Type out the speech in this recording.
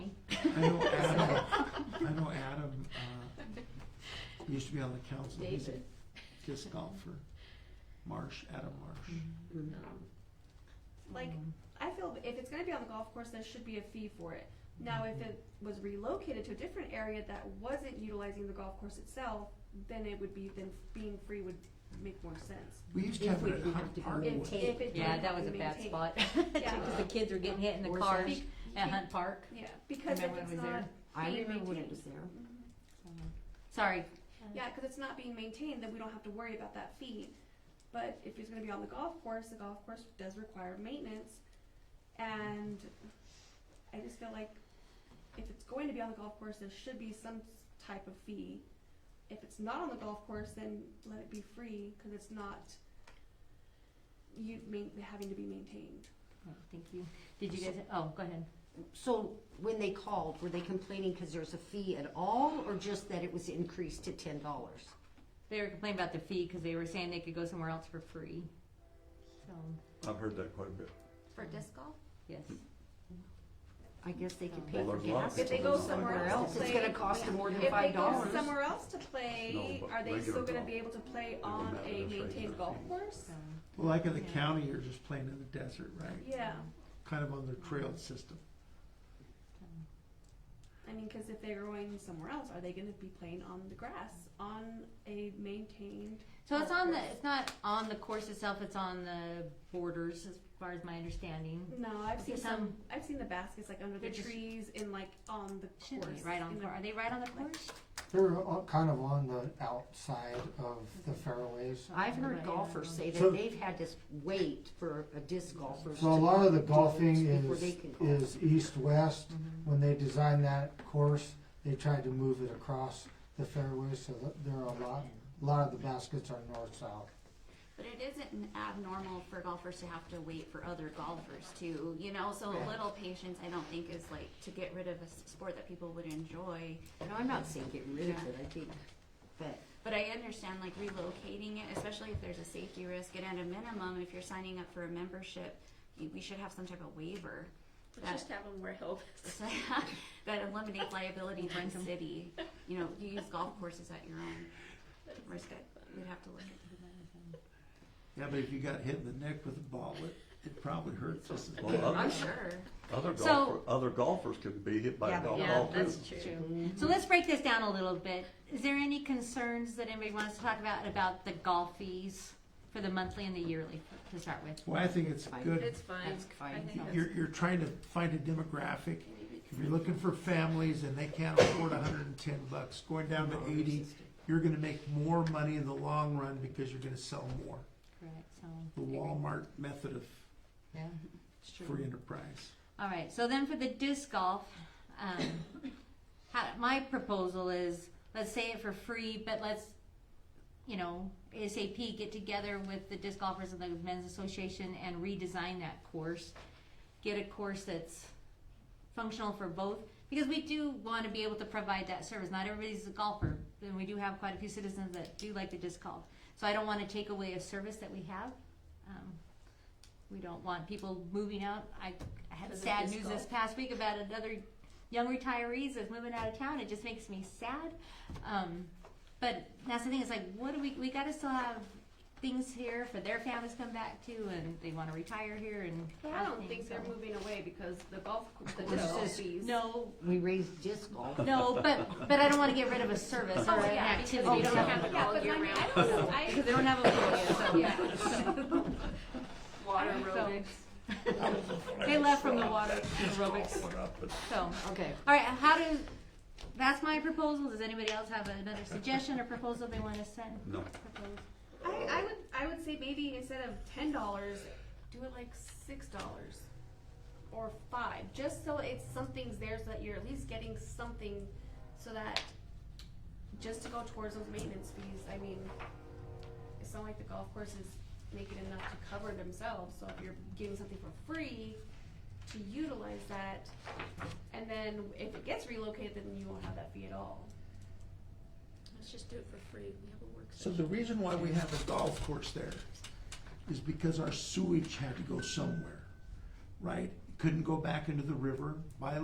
I know Adam, I know Adam, uh, used to be on the council. He's a David. disc golfer. Marsh, Adam Marsh. No. Like, I feel if it's gonna be on the golf course, there should be a fee for it. Now, if it was relocated to a different area that wasn't utilizing the golf course itself, then it would be, then being free would make more sense. We used to If have we it at didn't Har- have to go Hardwood. and take- If it Yeah, didn't that was a bad maintain- spot, Yeah. because the kids were getting hit in the Or cars something. at Hunt Park. Yeah, because if Remember when it's it was there? not, I being remember when it maintained. Mm-hmm. was there. Sorry, yeah, cause it's not being maintained, then we don't have to worry about that fee. But if it's gonna be on the golf course, the golf course does require maintenance. And I just feel like if it's going to be on the golf course, there should be some s- type of fee. If it's not on the golf course, then let it be free, cause it's not you main, having to be maintained. Oh, thank you. Did you guys, oh, go ahead. So when they called, were they complaining because there's a fee at all, or just that it was increased to ten dollars? They were complaining about the fee, because they were saying they could go somewhere else for free. So, I've heard that quite a bit. For disc golf? yes. I guess they could pay Well, for there's a lot gas. of If they go somewhere Somewhere else else, to it's play. gonna cost them more than If five they go dollars. somewhere else to No, play, but are they regular still gonna golf. be able to play Doesn't on matter a if it's maintained regular. golf course? So, Well, like in the Yeah. county, you're just playing in the desert, right? Yeah, um, Kind of on the trail system. I mean, cause if they're going somewhere else, are they gonna be playing on the grass, on a maintained? So it's on the, golf it's not on the course itself, it's on the borders, as far as my understanding. course? No, I've Okay, seen some, some- I've seen the baskets like under the They're just- trees and like on the Should course. be right on, in the- are they right on the course? They're o- kind of on the outside of the fairways. I've heard golfers say So- that they've had to s- wait for a disc golfer. So a lot of the to golf golfing before is, they can Mm-hmm. golf. is east-west. When they designed that course, they tried to move it across the fairways, so that there are a lot, a lot of the baskets are north-south. But it isn't abnormal for golfers to have to wait for other golfers too, you know. So a little patience, I don't think, is like to get rid of a s- sport that people would enjoy. No, I'm not saying get rid of it, I think, but But I understand like relocating it, especially if there's a safety risk. And at a minimum, if you're signing up for a membership, you, we should have some type of waiver Let's just have them wear helmets. that eliminates liability to the city. You know, you use golf courses at your own risk. We'd have to look at. Yeah, but if you got hit in the neck with a ball, it, it probably hurt just as Well, bad. I'm other, sure. other So- golfer, other golfers could be hit by Yeah, a golf Yeah, ball too. that's true. So let's break this down a little bit. Is there any concerns that anybody wants to talk about, about the golf fees for the monthly and the yearly to start with? Well, I think it's Fine. good. It's fine. That's fine. I think that's- You're, you're trying to find a demographic. If you're looking for families and they can't afford hundred and ten bucks, going down to eighty, you're gonna make more money in the long run because you're gonna sell more. Correct, so. The Walmart method of Yeah. free enterprise. All right, so then for the disc golf, um, how, my proposal is, let's say it for free, but let's, you know, ASAP get together with the disc golfers and the men's association and redesign that course. Get a course that's functional for both, because we do want to be able to provide that service. Not everybody's a golfer, and we do have quite a few citizens that do like the disc golf. So I don't want to take away a service that we have. Um, we don't want people moving out. I, I had Because of sad disc news golf. this past week about another young retirees that's moving out of town. It just makes me sad. Um, but that's the thing. It's like, what do we? We got to still have things here for their families to come back to, and they want to retire here. And But I have don't things, think they're so- moving away because the golf, cour- the course. disc No. golf fees. No, we raised disc golf. no, but but I don't want to get rid of a service or Oh, an yeah, because activity. we don't so- have it Yeah, all but year I mean, round. I don't know, I, because they don't have a so, yeah, water So- aerobics. They left from the water aerobics. Went up, but So, all Okay. right, how do? That's my proposal. Does anybody else have another suggestion or proposal they want to send? No. Propose. I, I would I would say maybe instead of ten dollars, do it like six dollars or five, just so it's something's there so that you're at least getting something, so that just to go towards those maintenance fees. I mean, it's not like the golf course is making enough to cover themselves. So if you're giving something for free to utilize that, and then if it gets relocated, then you won't have that fee at all. Let's just do it for free. We have a work So session. the reason why we have a golf course there is because our sewage had to go somewhere, right? Couldn't go back into the river. By